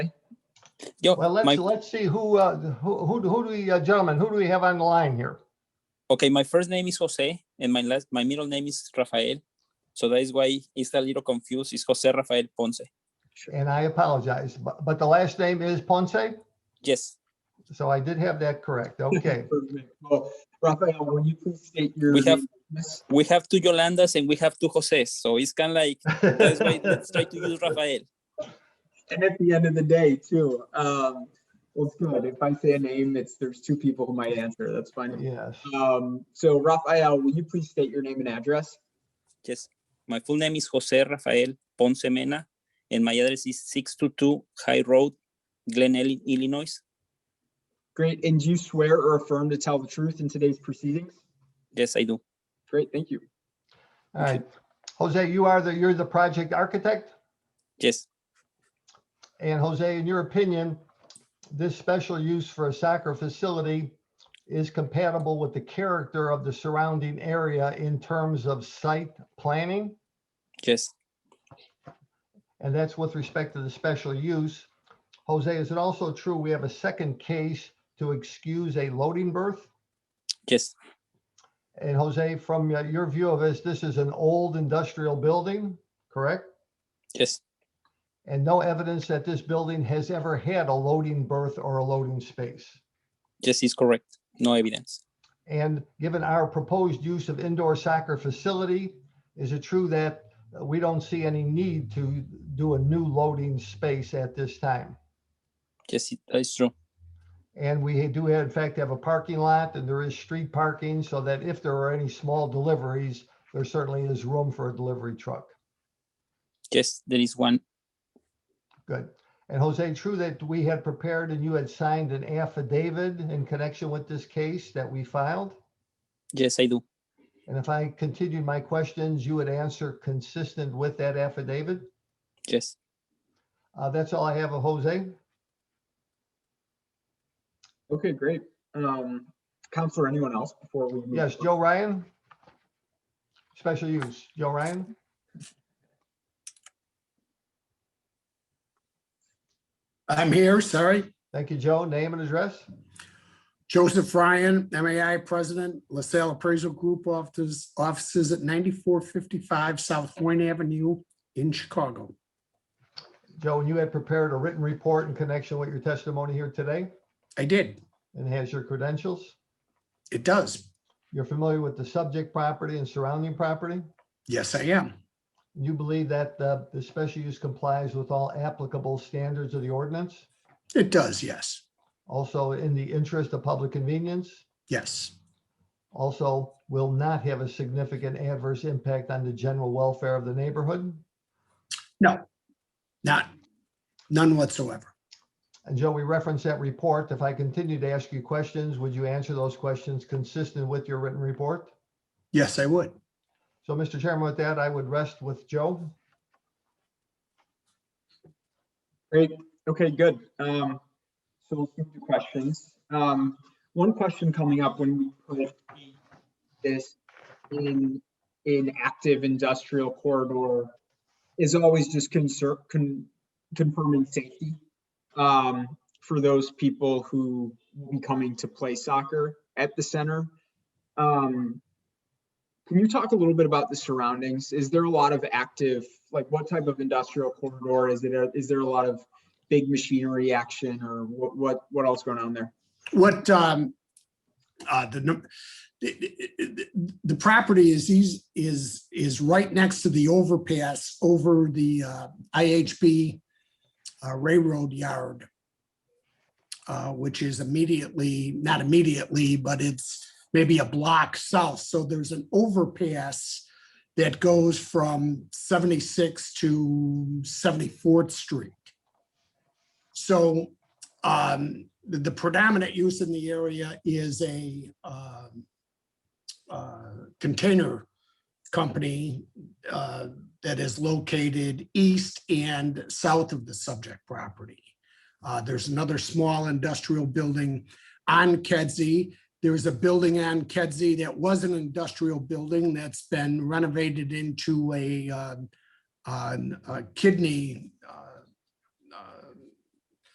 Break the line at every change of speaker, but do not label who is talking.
Yo,
Well,
my-
let's, let's see who, uh, who, who, who do we, uh, gentlemen, who do we have on the line here?
okay, my first name is Jose and my last, my middle name is Rafael. So that is why it's a little confused. It's Jose Rafael Ponce.
And I apologize, but, but the last name is Ponce,
Yes,
so I did have that correct. Okay.
Well, Rafael, will you please state your?
We have-
name, miss?
we have two Yolandas and we have two Joses. So it's kind of like, that's why let's try to use Rafael.
And at the end of the day too, um, well, it's good. If I say a name, it's, there's two people who might answer. That's fine.
Yes.
Um, so Rafael, will you please state your name and address?
Yes, my full name is Jose Rafael Ponce Mena, and my address is 622 High Road, Glen Ellyn, Illinois.
Great. And do you swear or affirm to tell the truth in today's proceedings?
Yes, I do.
Great, thank you.
All right. Jose, you are the, you're the project architect.
Yes,
And Jose, in your opinion, this special use for a soccer facility is compatible with the character of the surrounding area in terms of site planning?
yes,
And that's with respect to the special use. Jose, is it also true we have a second case to excuse a loading berth?
yes,
And Jose, from uh, your view of this, this is an old industrial building, correct?
yes,
And no evidence that this building has ever had a loading berth or a loading space.
yes, is correct. No evidence.
And given our proposed use of indoor soccer facility, is it true that uh, we don't see any need to do a new loading space at this time?
Yes, it- that's true.
And we do have, in fact, have a parking lot and there is street parking so that if there are any small deliveries, there certainly is room for a delivery truck.
Yes, there is one.
Good. And Jose, true that we had prepared and you had signed an affidavit in connection with this case that we filed?
Yes, I do.
And if I continued my questions, you would answer consistent with that affidavit?
Yes,
Uh, that's all I have of Jose.
Okay, great. Um, Counselor, anyone else before we? move
Yes,
on?
Joe Ryan. Special use, Joe Ryan.
I'm here, sorry.
Thank you, Joe. Name and address.
Joseph Ryan, MAI President, LaSalle Appraisal Group offices, offices at 9455 South Point Avenue in Chicago.
Joe, and you had prepared a written report in connection with your testimony here today
I did.
and has your credentials.
It does.
You're familiar with the subject property and surrounding property.
Yes, I am.
You believe that uh, the special use complies with all applicable standards of the ordinance?
It does, yes.
Also in the interest of public convenience?
Yes,
Also will not have a significant adverse impact on the general welfare of the neighborhood?
not, none whatsoever.
And Joe, we referenced that report. If I continue to ask you questions, would you answer those questions consistent with your written report?
Yes, I would.
So, Mr. Chairman, with that, I would rest with Joe.
Great. Okay, good. Um, so we'll move to questions. Um, one question coming up when we put this in, in active industrial corridor is always just concern, con, confirming safety. Um, for those people who will be coming to play soccer at the center. Um, can you talk a little bit about the surroundings? Is there a lot of active, like what type of industrial corridor? Is it, a- is there a lot of big machinery action or what, what, what else going on there?
What, um, uh, the, num- the- the, the- the property is, eas- is, is right next to the overpass over the, uh, IHB uh, railroad yard, uh, which is immediately, not immediately, but it's maybe a block south. So there's an overpass that goes from 76 to 74th Street. So um, the the predominant use in the area is a um, uh, container company uh, that is located east and south of the subject property. Uh, There's another small industrial building on Kedzie. There is a building on Kedzie that was an industrial building that's been renovated into a um, an- a kidney uh,